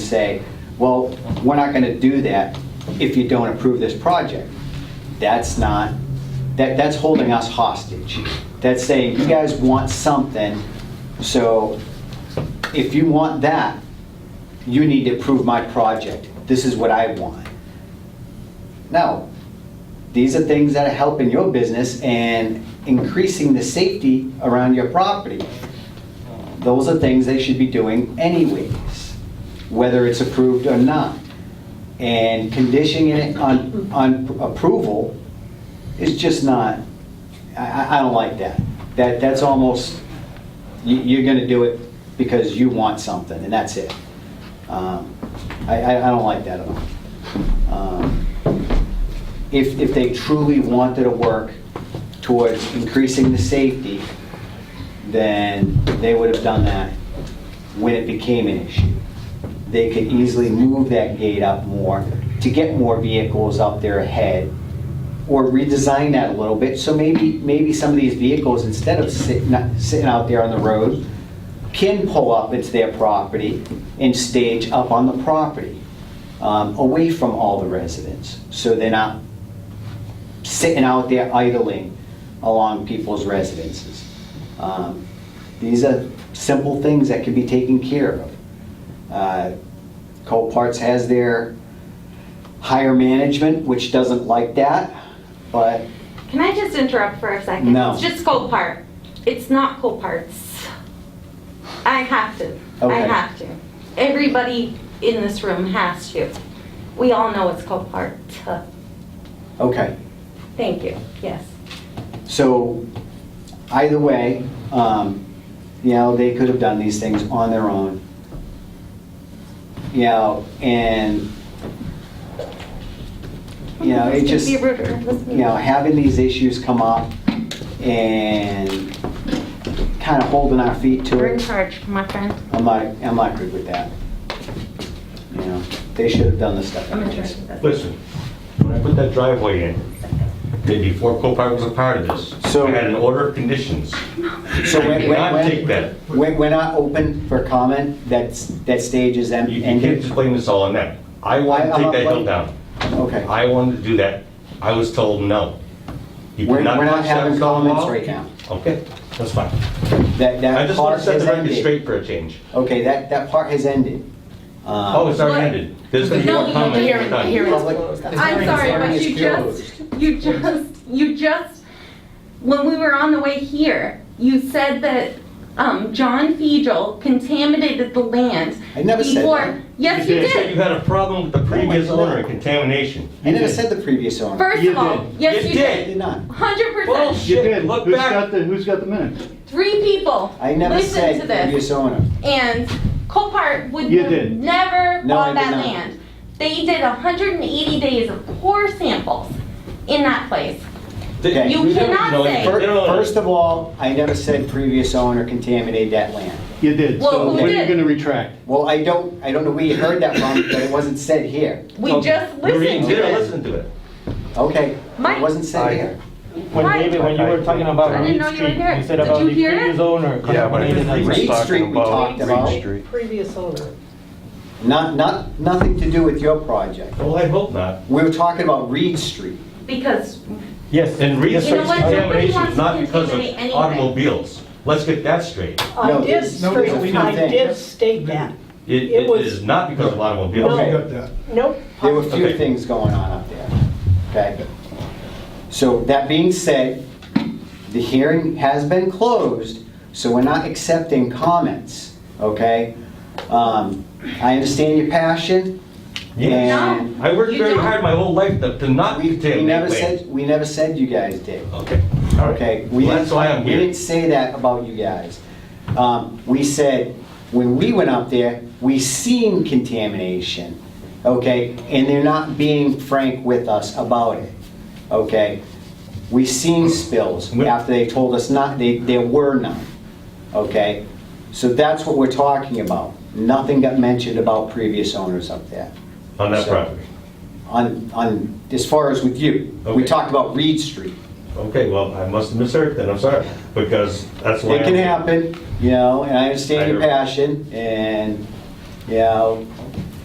say, well, we're not going to do that if you don't approve this project. That's not, that, that's holding us hostage. That's saying, you guys want something, so if you want that, you need to approve my project. This is what I want. No, these are things that are helping your business and increasing the safety around your property. Those are things they should be doing anyways, whether it's approved or not. And conditioning it on, on approval is just not, I- I, I don't like that. That, that's almost, you, you're gonna do it because you want something, and that's it. Um, I, I, I don't like that at all. Um, if, if they truly wanted to work towards increasing the safety, then they would have done that when it became an issue. They could easily move that gate up more to get more vehicles up there ahead, or redesign that a little bit, so maybe, maybe some of these vehicles, instead of sitting, sitting out there on the road, can pull up into their property and stage up on the property, um, away from all the residents, so they're not sitting out there idling along people's residences. Um, These are simple things that can be taken care of. Uh, Coparts has their higher management, which doesn't like that, but Can I just interrupt for a second? No. It's just cold part. It's not cold parts. I have to. I Okay. have to. Everybody in this room has to. We all know it's cold part. okay. Thank you. Yes. So either way, um, you know, they could have done these things on their own. You know, and, you know, it just Be ruder. Let's be you know, having these issues come up and kind of holding our feet to ruder. You're in it, charge, my friend. I'm not, I'm not good with that. You know, they should have done the stuff. I'm in charge of this. Listen, when I put that driveway in, day before Copart was a part of this, So- I had an order of conditions. So I when, cannot take when, that. when, when we're not open for comment, that's, that stage is em- You you can't ended. just blame this all on that. I wanted I- to I'm not take that hill blaming- down. Okay. I wanted to do that. I was told no. You We're- cannot we're not touch that having stone comments wall. right now. Okay, that's fine. That, I that just want part to set has the record ended. straight for a change. Okay, that, that part has ended. Oh, Um, it's already What? ended. There's going to be No, more you- comments. here- We're done. here- public- I'm sorry, hearing but is you just, you just, you just, when we were on the way here, you said that um, John Fiegel contaminated the land. I never said before- that. Yes, you You said you did. had a problem with the I previous did not. owner and contamination. I never said the previous owner. First You of all, did. yes, You you I did. did not. Hundred percent. Bullshit. You did. Look Who's back. got the, who's got the minutes? Three people I never listened to said this, previous owner. and Copart would You have did. never No, I bought did that not. land. They did hundred and eighty days of core samples in that place. Okay. You cannot say- Fir- You know- First of all, I never said previous owner contaminated that land. You did. Well, So who what are you did? gonna retract? Well, I don't, I don't know where you heard that from, but it wasn't said here. We Okay. just Maureen, listened to did I it. listen to it? Okay, Mike. it wasn't said here. When Right. David, when you were talking about I didn't Reed know you were Street, here. you said Did about you the hear it? previous owner Yeah, but I contaminated didn't us. read- Reed Street we talked about, previous owner. not, not, nothing to do with your project. Well, I hope not. We were talking about Reed Street. Because Yes. And You know research what? Nobody wants to examinations, not because contaminate anything. of automobiles. Let's get that straight. No, I did, it's- no, it's a state- few I things. did state that. It It it was- is not because of automobiles. Okay. Nope. There were a few Okay. things going on up there, okay? So that being said, the hearing has been closed, so we're not accepting comments, okay? Um, I understand your passion. Yes. and I worked You very don't. hard my whole life to to not We we contaminate never land. said, we never said you guys did. Okay, all right. Okay, we Well, didn't, that's why I'm we here. didn't say that about you guys. Um, we said, when we went up there, we seen contamination, okay? And they're not being frank with us about it, okay? We seen spills We- after they told us not, they, there were none, okay? So that's what we're talking about. Nothing got mentioned about previous owners up there. On that So- property. On, on, as far as with you, we Okay. talked about Reed Street. Okay, well, I must have misheard then, I'm sorry, because that's why. It can I'm- happen, you know, and I I understand your hear- passion, and, you know,